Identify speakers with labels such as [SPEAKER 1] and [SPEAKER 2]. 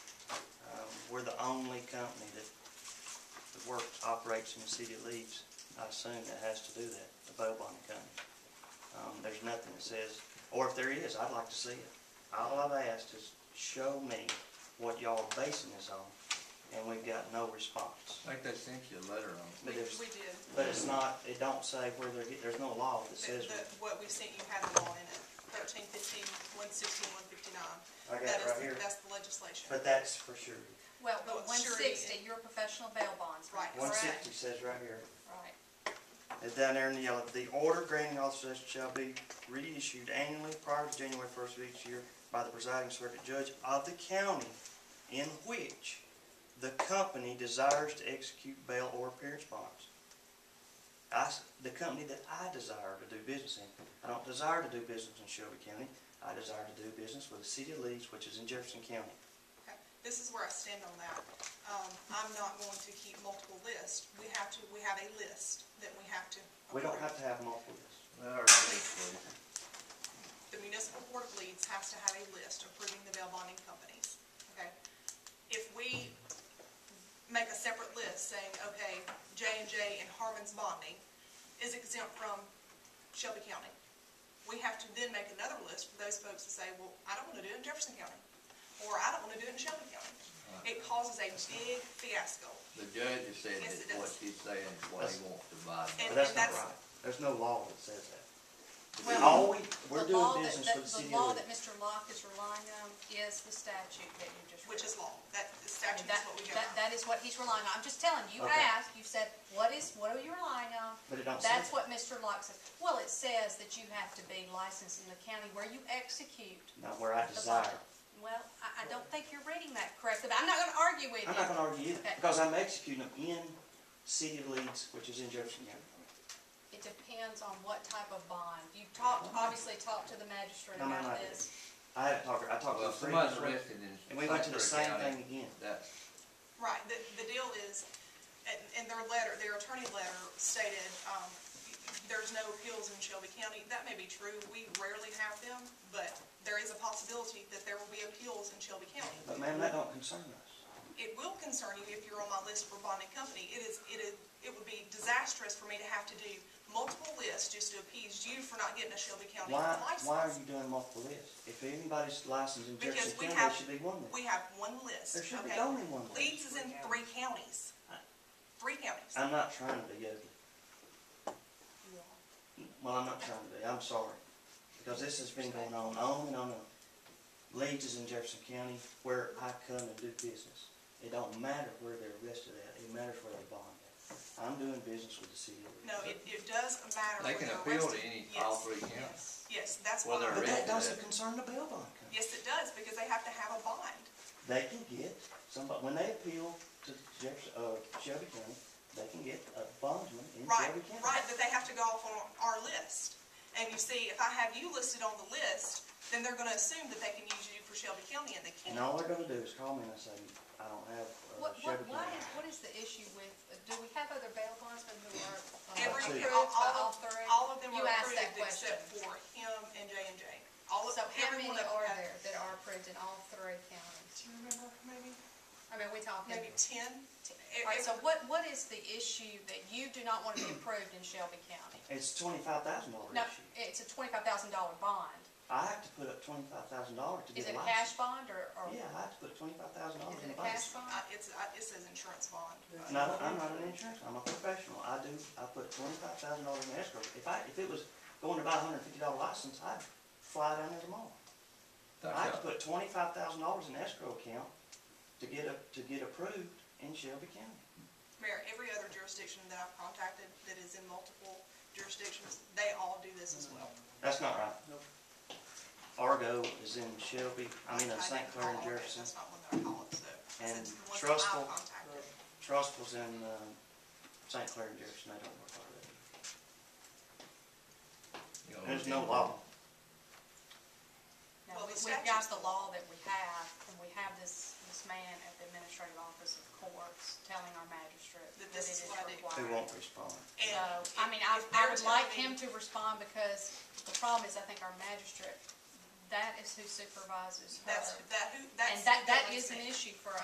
[SPEAKER 1] Um, we're the only company that, that works, operates in the city of Leeds, I assume that has to do that, the bow bonding company. Um, there's nothing that says, or if there is, I'd like to see it. All I've asked is show me what y'all are basing this on, and we've got no response.
[SPEAKER 2] I think they sent you a letter on
[SPEAKER 1] But
[SPEAKER 3] We,
[SPEAKER 1] there's,
[SPEAKER 3] we did.
[SPEAKER 1] but it's not, it don't say where they're, get- there's no law that
[SPEAKER 3] The,
[SPEAKER 1] says.
[SPEAKER 3] the, what we sent you had them all in it, thirteen, fifteen, one sixteen, one fifty-nine.
[SPEAKER 1] I got it
[SPEAKER 3] That is,
[SPEAKER 1] right here.
[SPEAKER 3] that's the legislation.
[SPEAKER 1] But that's for sure.
[SPEAKER 4] Well,
[SPEAKER 3] Well,
[SPEAKER 4] but one
[SPEAKER 3] Oh, surety.
[SPEAKER 4] sixty, your professional bail bonds, right?
[SPEAKER 3] Right.
[SPEAKER 1] One
[SPEAKER 3] Correct.
[SPEAKER 1] sixty says right here.
[SPEAKER 4] Right.
[SPEAKER 1] It's down there in the yellow, the order granting authorization shall be reissued annually prior to January first of each year by the presiding circuit judge of the county in which the company desires to execute bail or appearance bonds. I s the company that I desire to do business in, I don't desire to do business in Shelby County, I desire to do business with the city of Leeds, which is in Jefferson County.
[SPEAKER 3] Okay, This is where I stand on that. Um, I'm not going to keep multiple lists. We have to, we have a list that we have to.
[SPEAKER 1] We don't have
[SPEAKER 3] approve.
[SPEAKER 1] to have multiple lists.
[SPEAKER 2] our police.
[SPEAKER 3] The municipal board of leads has to have a list approving the bail bonding companies, okay? If we make a separate list saying, okay, J and J and Harmon's Bonding is exempt from Shelby County, we have to then make another list for those folks to say, well, I don't wanna do it in Jefferson County, or I don't wanna do it in Shelby County. It causes a big fiasco.
[SPEAKER 2] The judge has said that
[SPEAKER 3] Yes, it
[SPEAKER 2] what
[SPEAKER 3] does.
[SPEAKER 2] she's saying is what he wants to buy.
[SPEAKER 1] But
[SPEAKER 3] And-
[SPEAKER 1] that's not
[SPEAKER 3] that's-
[SPEAKER 1] right. There's no law that says that.
[SPEAKER 4] Well,
[SPEAKER 1] All we, we're
[SPEAKER 4] The
[SPEAKER 1] doing
[SPEAKER 4] law that-
[SPEAKER 1] business
[SPEAKER 4] that-
[SPEAKER 1] with the city
[SPEAKER 4] The law
[SPEAKER 1] of
[SPEAKER 4] that
[SPEAKER 1] Lee.
[SPEAKER 4] Mr. Locke is relying on is the statute that you just.
[SPEAKER 3] which
[SPEAKER 4] read.
[SPEAKER 3] is law. That the statute is
[SPEAKER 4] That,
[SPEAKER 3] what we go
[SPEAKER 4] that,
[SPEAKER 3] by.
[SPEAKER 4] that is what he's relying on. I'm just telling you, you
[SPEAKER 1] Okay.
[SPEAKER 4] asked, you said, what is, what are you relying on?
[SPEAKER 1] But it don't say
[SPEAKER 4] That's
[SPEAKER 1] that.
[SPEAKER 4] what Mr. Locke says. Well, it says that you have to be licensed in the county where you execute
[SPEAKER 1] Not where I
[SPEAKER 4] the
[SPEAKER 1] desire.
[SPEAKER 4] bond. Well, I, I don't think you're reading that correctly, but I'm not gonna argue with you.
[SPEAKER 1] I'm not gonna argue either,
[SPEAKER 4] Okay.
[SPEAKER 1] because I'm executing them in city of Leeds, which is in Jefferson County.
[SPEAKER 4] It depends on what type of bond. You talked, obviously talked to the magistrate
[SPEAKER 1] No, no, no, I
[SPEAKER 4] about
[SPEAKER 1] didn't.
[SPEAKER 4] this.
[SPEAKER 1] I haven't talked, I talked to
[SPEAKER 2] Well,
[SPEAKER 1] the three
[SPEAKER 2] somebody's
[SPEAKER 1] different,
[SPEAKER 2] arrested in.
[SPEAKER 1] and we went to the
[SPEAKER 2] Saint
[SPEAKER 1] same
[SPEAKER 2] Clair
[SPEAKER 1] thing
[SPEAKER 2] County.
[SPEAKER 1] again.
[SPEAKER 2] That's,
[SPEAKER 3] Right, the, the deal is, and, and their letter, their attorney letter stated, um, there's no appeals in Shelby County. That may be true, we rarely have them, but there is a possibility that there will be appeals in Shelby County.
[SPEAKER 1] But ma'am, that don't concern us.
[SPEAKER 3] It will concern you if you're on my list for bonding company. It is, it is, it would be disastrous for me to have to do multiple lists just to appease you for not getting a Shelby County
[SPEAKER 1] Why,
[SPEAKER 3] license.
[SPEAKER 1] why are you doing multiple lists? If anybody's licensed in
[SPEAKER 3] Because
[SPEAKER 1] Jefferson
[SPEAKER 3] we
[SPEAKER 1] County,
[SPEAKER 3] have-
[SPEAKER 1] there should be one
[SPEAKER 3] We
[SPEAKER 1] list.
[SPEAKER 3] have one list.
[SPEAKER 1] There should be
[SPEAKER 3] okay?
[SPEAKER 1] only one list.
[SPEAKER 3] Leeds is in three counties. Three counties.
[SPEAKER 1] I'm not trying to be ugly. Well, I'm not trying to be, I'm sorry. Because this has been going on, on and on and on. Leeds is in Jefferson County where I come and do business. It don't matter where they're arrested at, it matters where they bond at. I'm doing business with the city of Leeds.
[SPEAKER 3] No, it, it does matter.
[SPEAKER 2] they
[SPEAKER 3] when
[SPEAKER 2] can
[SPEAKER 3] they're
[SPEAKER 2] appeal to
[SPEAKER 3] arrested.
[SPEAKER 2] any,
[SPEAKER 3] Yes,
[SPEAKER 2] all three counties.
[SPEAKER 3] Yes, that's
[SPEAKER 2] Well,
[SPEAKER 3] why.
[SPEAKER 2] they're
[SPEAKER 1] But that
[SPEAKER 2] arrested.
[SPEAKER 1] doesn't concern the bail bond company.
[SPEAKER 3] Yes, it does, because they have to have a bond.
[SPEAKER 1] They can get, somebody, when they appeal to Jefferson, uh, Shelby County, they can get a bondsman in
[SPEAKER 3] Right,
[SPEAKER 1] Shelby County.
[SPEAKER 3] right, that they have to go off on our list. And you see, if I have you listed on the list, then they're gonna assume that they can use you for Shelby County, and they
[SPEAKER 1] And
[SPEAKER 3] can't.
[SPEAKER 1] all they're gonna do is call me and I say, I don't have, uh,
[SPEAKER 4] What, what,
[SPEAKER 1] Shelby
[SPEAKER 4] what
[SPEAKER 1] County.
[SPEAKER 4] is, what is the issue with, do we have other bail bondsmen who are uh,
[SPEAKER 3] Every,
[SPEAKER 1] Two.
[SPEAKER 4] approved
[SPEAKER 3] all,
[SPEAKER 4] by
[SPEAKER 3] all
[SPEAKER 4] all
[SPEAKER 3] of,
[SPEAKER 4] three?
[SPEAKER 3] all of them
[SPEAKER 4] You
[SPEAKER 3] are
[SPEAKER 4] asked that
[SPEAKER 3] approved except
[SPEAKER 4] question.
[SPEAKER 3] for him and J and J. All of,
[SPEAKER 4] So how
[SPEAKER 3] every
[SPEAKER 4] many
[SPEAKER 3] one of them.
[SPEAKER 4] are
[SPEAKER 3] have-
[SPEAKER 4] there that are approved in all three counties?
[SPEAKER 3] Do you remember, maybe,
[SPEAKER 4] I mean, we talking,
[SPEAKER 3] maybe ten?
[SPEAKER 4] all right, so what, what is the issue that you do not want to be approved in Shelby County?
[SPEAKER 1] It's twenty-five thousand dollar
[SPEAKER 4] No,
[SPEAKER 1] issue.
[SPEAKER 4] it's a twenty-five thousand dollar bond.
[SPEAKER 1] I have to put up twenty-five thousand dollars to
[SPEAKER 4] Is
[SPEAKER 1] get a
[SPEAKER 4] it a
[SPEAKER 1] license.
[SPEAKER 4] cash bond or, or?
[SPEAKER 1] Yeah, I have to put twenty-five thousand dollars
[SPEAKER 4] Is
[SPEAKER 1] in the
[SPEAKER 4] it a cash
[SPEAKER 1] bank.
[SPEAKER 4] bond?
[SPEAKER 3] Uh, it's, uh, it says insurance bond. but-
[SPEAKER 1] No, I'm not an insurance, I'm a professional, I do, I put twenty-five thousand dollars in escrow. If I, if it was going to buy a hundred and fifty dollar license, I'd fly down there tomorrow.
[SPEAKER 2] That's
[SPEAKER 1] I have to
[SPEAKER 2] how-
[SPEAKER 1] put twenty-five thousand dollars in escrow account to get a, to get approved in Shelby County.
[SPEAKER 3] Mayor, every other jurisdiction that I've contacted that is in multiple jurisdictions, they all do this as well.
[SPEAKER 1] That's not right. Argo is in Shelby, I mean, in
[SPEAKER 3] I
[SPEAKER 1] St.
[SPEAKER 3] didn't
[SPEAKER 1] Clair and
[SPEAKER 3] call it,
[SPEAKER 1] Jefferson.
[SPEAKER 3] That's not one that I called, so. I said
[SPEAKER 1] And
[SPEAKER 3] the ones that
[SPEAKER 1] Trustful.
[SPEAKER 3] I've contacted.
[SPEAKER 1] Trustful's in, um, St. Clair and Jefferson, they don't work like that.
[SPEAKER 2] you know,
[SPEAKER 1] There's no law.
[SPEAKER 4] No,
[SPEAKER 3] Well,
[SPEAKER 4] we-
[SPEAKER 3] the
[SPEAKER 4] we've got
[SPEAKER 3] statute's
[SPEAKER 4] the
[SPEAKER 3] the
[SPEAKER 4] law that we have, and we have this, this man at the administrative office of courts telling our magistrate
[SPEAKER 3] That
[SPEAKER 4] that it
[SPEAKER 3] this is
[SPEAKER 4] is
[SPEAKER 3] what I do.
[SPEAKER 1] They
[SPEAKER 4] required.
[SPEAKER 1] won't respond.
[SPEAKER 4] So,
[SPEAKER 3] And
[SPEAKER 4] I mean, I,
[SPEAKER 3] if
[SPEAKER 4] I
[SPEAKER 3] they're
[SPEAKER 4] would like
[SPEAKER 3] telling
[SPEAKER 4] him
[SPEAKER 3] me-
[SPEAKER 4] to respond because the problem is, I think our magistrate, that is who supervises her.
[SPEAKER 3] That's, that, who, that's.
[SPEAKER 4] And that, that
[SPEAKER 3] makes
[SPEAKER 4] is an
[SPEAKER 3] sense.
[SPEAKER 4] issue for